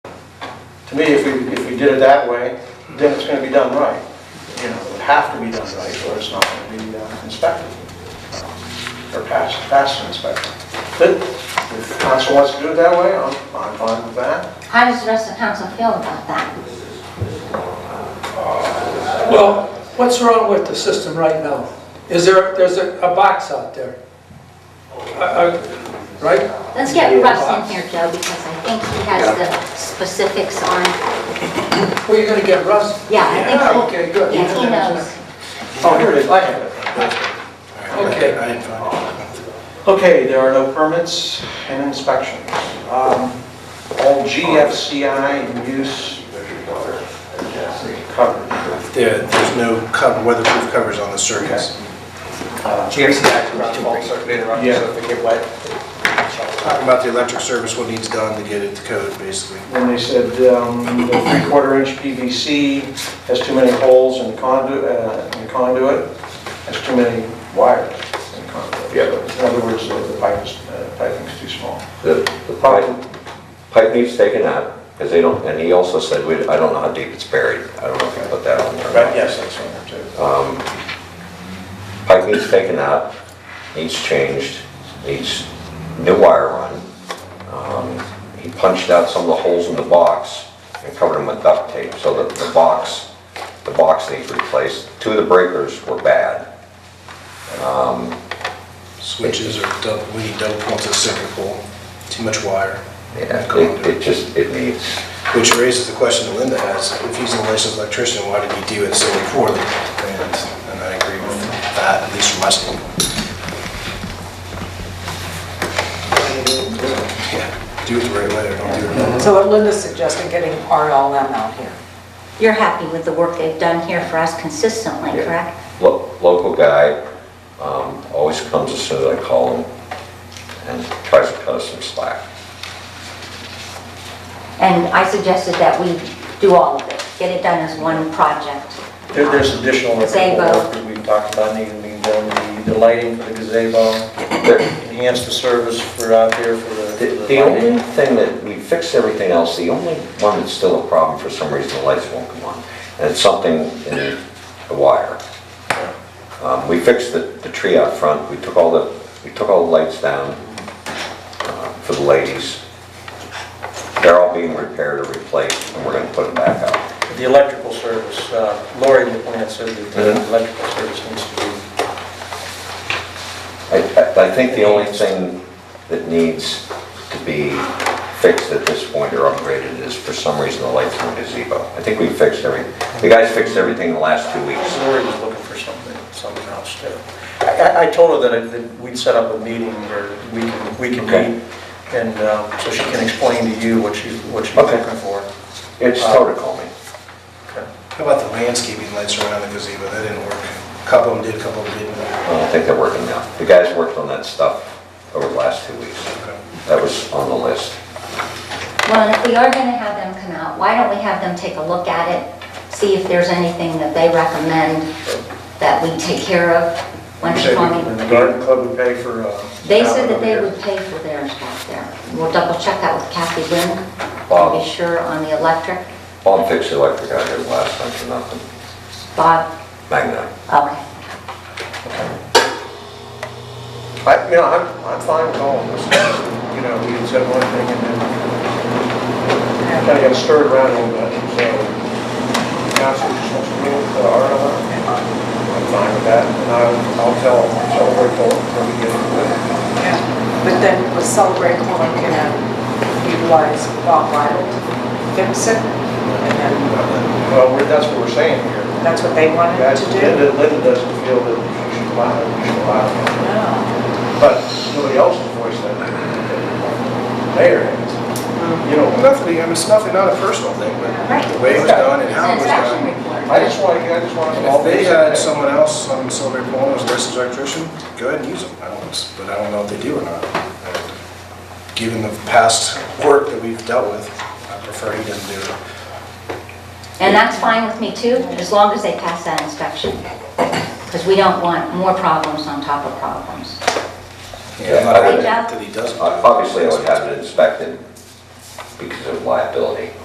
to me, if we, if we did it that way, then it's gonna be done right. You know, it would have to be done right, or it's not gonna be uh, inspected, or passed, passed inspection. But if council wants to do it that way, I'm, I'm fine with that. How does the rest of council feel about that? Well, what's wrong with the system right now? Is there, there's a, a box out there? I- I- Right? Let's get Russ in here, Joe, because I think he has the specifics on, Well, you're gonna get Russ? yeah, I think Yeah, so. okay, good. Yeah, he knows. Oh, here it is, I have it. Okay. I didn't find it. Okay, there are no permits and inspections. Um, All GFCI use covered. There, there's no cover, weatherproof covers on the surface. GFCI around fault circulator, so Yeah. if they get wet, Talking about the electric service, what needs done to get it to code, basically. When they said um, the three-quarter inch PVC has too many holes in the conduit, uh, in the conduit, has too many wires in the conduit. Yeah. In other words, the the pipe is, uh, piping's too small. The the pipe, pipe needs taken out, because they don't, and he also said, we- I don't know how deep it's buried. I don't know if you put that on there. Um, But yes, that's one there too. Pipe needs taken out, needs changed, needs new wire run. Um, He punched out some of the holes in the box and covered them with duct tape, so that the box, the box needs replaced. Two of the breakers were bad. Switches are double, we need double points of circuit pole, too much wire. Yeah, It it just, it needs, Which raises the question that Linda has, if he's a licensed electrician, why did he do it so poorly? And and I agree with that, at least from my standpoint. Yeah, Do it the right way or don't do it at all. So what Linda's suggesting, getting RLM out here. You're happy with the work they've done here for us consistently, Yeah. correct? Lo- Local guy, um, always comes as soon as I call him and tries to cut us some slack. And I suggested that we do all of it, get it done as one project. There- There's additional Gazebo. work that we've talked about needing to be done, the the lighting for the gazebo, The enhance the service for out there for the the- the the only lighting. thing that, we fixed everything else, the only one that's still a problem, for some reason, the lights won't come on. And it's something in the wire. Um, We fixed the, the tree out front, we took all the, we took all the lights down uh, for the ladies. They're all being repaired or replaced, and we're gonna put them back out. The electrical service, uh, Lori LaPlante said that the electrical service needs to be, I, I- I think the only thing that needs to be fixed at this point or upgraded is for some reason the lights in the gazebo. I think we fixed every, the guys fixed everything in the last two weeks. Lori was looking for something, something else too. I- I, I told her that I- that we'd set up a meeting where we can, we can Okay. meet, and um, so she can explain to you what she's, what she's Okay. looking for. It's Toto called me. Okay. How about the landscaping lights around the gazebo? That didn't work. A Couple of them did, a couple of them didn't. I don't think they're working now. The guys worked on that stuff over the last two weeks. That was on the list. Well, and if we are gonna have them come out, why don't we have them take a look at it, see if there's anything that they recommend that we take care of when they come in? The garden club would pay for. uh, They said that over they here. would pay for theirs back there. We'll double check that with Kathy Wynn, to Bob. be sure on the electric. Bob fixed the electric out here last time for nothing. Bob, Magnite. okay. I, you know, I'm, I'm fine with all of this, you know, we had said one thing and then kind of got stirred around a little bit, so council just wants to deal with the R I'm fine with that, and I'll, I'll tell, celebrate all, when we get into it. But then with Celebrate Corn, can utilize Bob Wild to fix it? And then Well, we're, that's what we're saying here. that's what they wanted Guys, to do? Oh. Linda, Linda doesn't feel that you should allow it, you should allow it, No. but nobody else has voiced that. Mayor has, you know, Nothing, I mean, it's nothing, not a personal thing, but the way it was done and how it was uh, done. I just want, I just want. And If they had someone else on Silver Pole as a licensed electrician, go ahead and use them, I don't, but I don't know if they do or not. Given the past work that we've dealt with, I prefer he doesn't do it. And that's fine with me too, as long as they pass that inspection. Because we don't want more problems on top of problems. Yeah, I'm not I would- Uh, adamant That he doesn't. do it. Obviously, I would have it inspected because of liability.